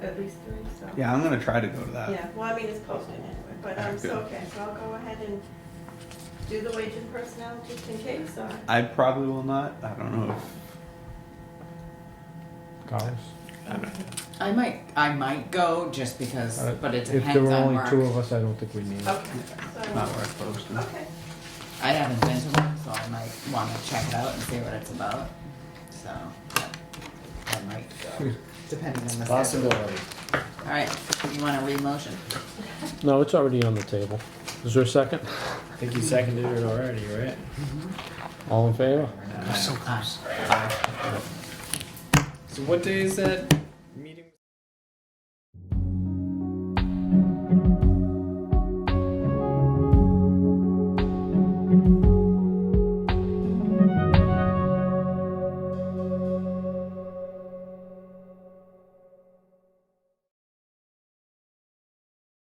at least three, so. Yeah, I'm gonna try to go to that. Yeah, well, I mean, it's posted anyway, but I'm so, Good. okay, so I'll go ahead and do the wage and personnel just in case, or, I probably will not. I don't know if dollars. I don't know. I might, I might go just because, Uh, but it If depends there were on only work. two of us, I don't think we need. it. okay, not so, worth posting. okay, I haven't been to one, so I might want to check it out and see what it's about. So I might Hmm. go, depending on the schedule. Possibility. All right, you want to read motion? No, it's already on the table. Is there a second? I think you seconded it already, right? All in favor? Or not? Aye. So what day is that